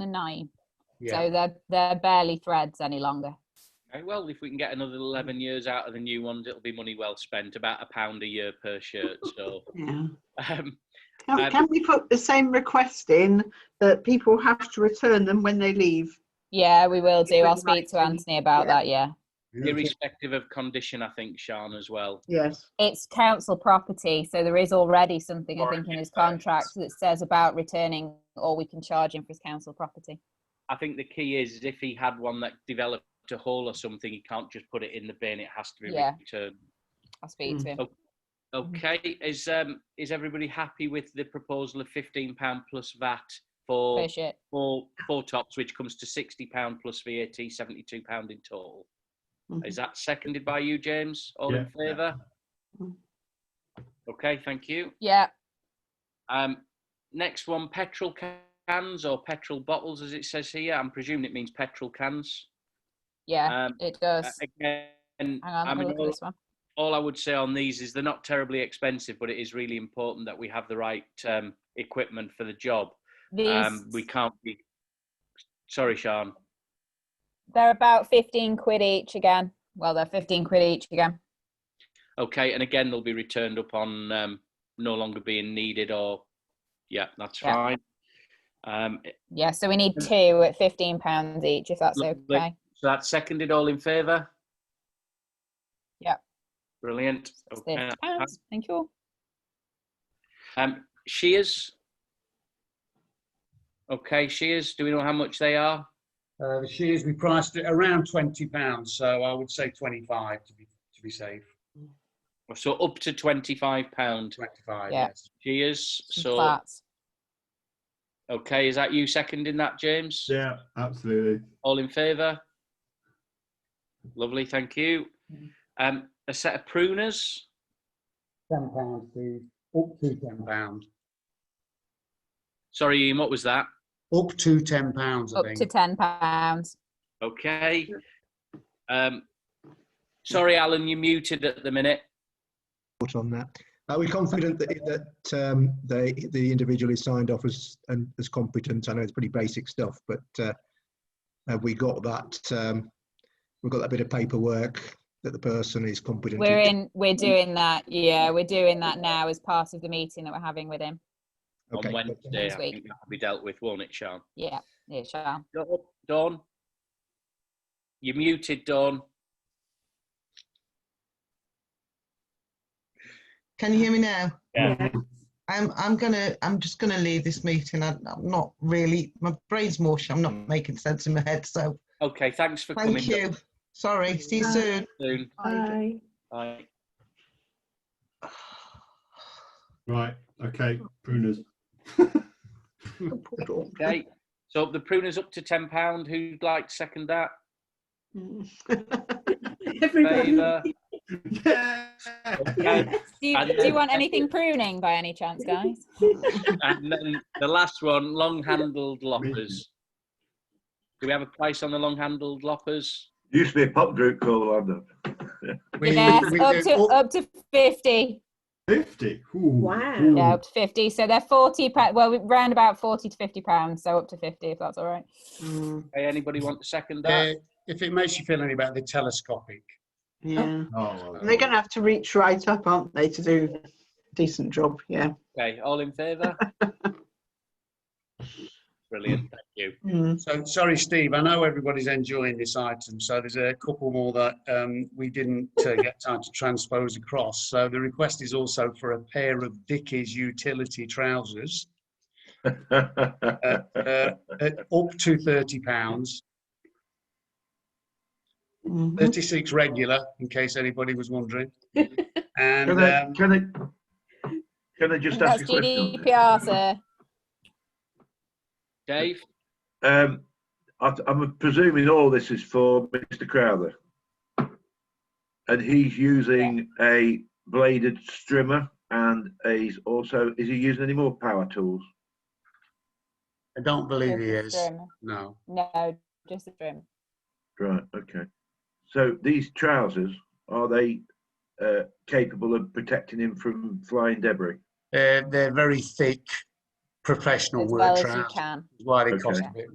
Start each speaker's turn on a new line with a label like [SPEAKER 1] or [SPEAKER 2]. [SPEAKER 1] 2009.
[SPEAKER 2] Yeah.
[SPEAKER 1] So they're, they're barely threads any longer.
[SPEAKER 3] Okay, Well, if we can get another
[SPEAKER 1] Mm.
[SPEAKER 3] 11 years out of the new ones, it'll be money well spent, about a pound a year per shirt. So,
[SPEAKER 4] Yeah.
[SPEAKER 3] um, Um,
[SPEAKER 4] Can, can we put the same request in that people have to return them when they leave?
[SPEAKER 1] Yeah, we will do. I'll
[SPEAKER 4] Different
[SPEAKER 1] speak to
[SPEAKER 4] writing,
[SPEAKER 1] Anthony about
[SPEAKER 4] yeah.
[SPEAKER 1] that. Yeah.
[SPEAKER 3] irrespective of condition, I think, Sean, as well.
[SPEAKER 4] Yes.
[SPEAKER 1] It's council property. So there is already something, I
[SPEAKER 3] Or
[SPEAKER 1] think, in his
[SPEAKER 3] it's ours.
[SPEAKER 1] contract that says about returning all we can charge him for his council property.
[SPEAKER 3] I think the key is if he had one that developed a hole or something, he can't just put it in the bin. It has to be
[SPEAKER 1] Yeah. Mm.
[SPEAKER 3] returned.
[SPEAKER 1] I'll speak to him.
[SPEAKER 3] Okay. Okay, is um is everybody happy with the proposal of fifteen pound plus VAT for
[SPEAKER 1] Fish it.
[SPEAKER 3] four four tops, which comes to sixty pound plus VAT, seventy two pound in total? Is that seconded by you, James? All in favour?
[SPEAKER 4] Mm.
[SPEAKER 3] Okay, thank you.
[SPEAKER 1] Yeah.
[SPEAKER 3] Um, next one, petrol cans or petrol bottles, as it says here. I'm presuming it means petrol cans.
[SPEAKER 1] Yeah.
[SPEAKER 3] Um,
[SPEAKER 1] It does.
[SPEAKER 3] Uh, Again,
[SPEAKER 1] Hang on.
[SPEAKER 3] I
[SPEAKER 1] Let me
[SPEAKER 3] mean,
[SPEAKER 1] look at
[SPEAKER 3] all,
[SPEAKER 1] this one.
[SPEAKER 3] all I would say on these is they're not terribly expensive, but it is really important that we have the right um, equipment for the job. Um, we
[SPEAKER 1] These,
[SPEAKER 3] can't be. Sorry, Sean.
[SPEAKER 1] they're about 15 quid each again. Well, they're 15 quid each again.
[SPEAKER 3] Okay, and again, they'll be returned upon um, no longer being needed or. Yeah, that's
[SPEAKER 1] Yeah.
[SPEAKER 3] fine. Um,
[SPEAKER 1] Yeah. So we need two at 15 pounds each, if that's
[SPEAKER 3] Hmm. Lovely.
[SPEAKER 1] okay.
[SPEAKER 3] so that's seconded. All in favour?
[SPEAKER 1] Yeah.
[SPEAKER 3] Brilliant.
[SPEAKER 1] It's
[SPEAKER 3] Okay.
[SPEAKER 1] 30 pounds. Thank you.
[SPEAKER 3] Um, shears. Okay, shears. Do we know how much they are?
[SPEAKER 2] Uh, the shears, we priced it around twenty pounds, so I would say twenty-five to be, to be safe,
[SPEAKER 3] So up to twenty-five pound
[SPEAKER 2] twenty-five,
[SPEAKER 1] Yeah.
[SPEAKER 2] yes.
[SPEAKER 3] cheers. So
[SPEAKER 1] Flats.
[SPEAKER 3] okay, is that you seconding that, James?
[SPEAKER 5] Yeah, absolutely.
[SPEAKER 3] All in favour? Lovely, thank you.
[SPEAKER 4] Mm.
[SPEAKER 3] Um, a set of pruners.
[SPEAKER 2] Ten pounds, Steve, up to ten pounds,
[SPEAKER 3] Sorry, Ian, what was that?
[SPEAKER 2] up to ten pounds, I
[SPEAKER 1] Up to
[SPEAKER 2] think.
[SPEAKER 1] ten pounds.
[SPEAKER 3] Okay. Um, sorry, Alan, you're muted at the minute.
[SPEAKER 6] report on that. Are we confident that, that um, they, the individual is signed off as, and as competent? I know it's pretty basic stuff, but uh, have we got that, um, we've got that bit of paperwork that the person is competent?
[SPEAKER 1] We're in. We're doing that. Yeah, we're doing that now as part of the meeting that we're having with him.
[SPEAKER 6] Okay.
[SPEAKER 3] On Wednesday, I
[SPEAKER 1] Next week.
[SPEAKER 3] think that'll be dealt with, won't it, Sean?
[SPEAKER 1] Yeah, it shall.
[SPEAKER 3] Dawn- Dawn? You're muted, Dawn.
[SPEAKER 7] Can you hear me now?
[SPEAKER 3] Yeah.
[SPEAKER 7] I'm, I'm gonna, I'm just gonna leave this meeting. I- I'm not really, my brain's mush. I'm not making sense in my head. So
[SPEAKER 3] Okay, thanks for coming.
[SPEAKER 7] thank you. Sorry. See you
[SPEAKER 4] Bye.
[SPEAKER 7] soon.
[SPEAKER 3] Soon.
[SPEAKER 4] Aye.
[SPEAKER 3] Bye.
[SPEAKER 5] Right. Okay. Pruners.
[SPEAKER 3] Okay, so the pruner's up to ten pound. Who'd like to second that?
[SPEAKER 4] Mm,
[SPEAKER 3] Favour.
[SPEAKER 5] yeah.
[SPEAKER 3] Okay.
[SPEAKER 1] Do you,
[SPEAKER 3] And
[SPEAKER 1] do you
[SPEAKER 3] then-
[SPEAKER 1] want anything pruning by any chance, guys?
[SPEAKER 3] and then the last one, long-handled loppers. Do we have a price on the long-handled loppers?
[SPEAKER 8] Used to be a pub group called London.
[SPEAKER 2] We-
[SPEAKER 1] yes,
[SPEAKER 2] we
[SPEAKER 1] up
[SPEAKER 2] do
[SPEAKER 1] to up to fifty.
[SPEAKER 5] Fifty. Ooh.
[SPEAKER 9] Wow.
[SPEAKER 5] Ooh.
[SPEAKER 1] Yeah, up to fifty. So they're forty. pa- Well, we round about forty to fifty pounds. So up to fifty, if that's all right.
[SPEAKER 4] Oh.
[SPEAKER 3] Okay, anybody want to second
[SPEAKER 2] Uh,
[SPEAKER 3] that?
[SPEAKER 2] If it makes you feel any better, they're telescopic.
[SPEAKER 4] Yeah.
[SPEAKER 5] Oh, well,
[SPEAKER 4] They're going to have to reach right up, aren't they, to do a decent job? Yeah.
[SPEAKER 3] Okay, all in favour? Brilliant, thank you.
[SPEAKER 4] Mm.
[SPEAKER 2] So, sorry, Steve, I know everybody's enjoying this item, so there's a couple more that um, we didn't uh, get time to transpose across. So the request is also for a pair of Dickies utility trousers, uh, at up to thirty pounds,
[SPEAKER 4] Mhm.
[SPEAKER 2] thirty-six regular, in case anybody was wondering. And,
[SPEAKER 8] Can I,
[SPEAKER 2] um,
[SPEAKER 8] can I, can I just
[SPEAKER 1] That's E
[SPEAKER 8] ask a question?
[SPEAKER 1] GDPR, sir.
[SPEAKER 3] Dave,
[SPEAKER 8] Um, I, I'm presuming all this is for Mr. Crowther. And he's using a bladed strimmer and he's also, is he using any more power tools?
[SPEAKER 2] I don't believe he
[SPEAKER 1] Just
[SPEAKER 2] is,
[SPEAKER 1] the trim.
[SPEAKER 2] no.
[SPEAKER 1] No, just the trim.
[SPEAKER 8] Right, okay. So these trousers, are they uh, capable of protecting him from flying debris?
[SPEAKER 2] They're, they're very thick professional
[SPEAKER 1] as
[SPEAKER 2] work
[SPEAKER 1] well as you
[SPEAKER 2] trousers.
[SPEAKER 1] can.
[SPEAKER 2] That's why they cost
[SPEAKER 8] Okay.
[SPEAKER 2] a bit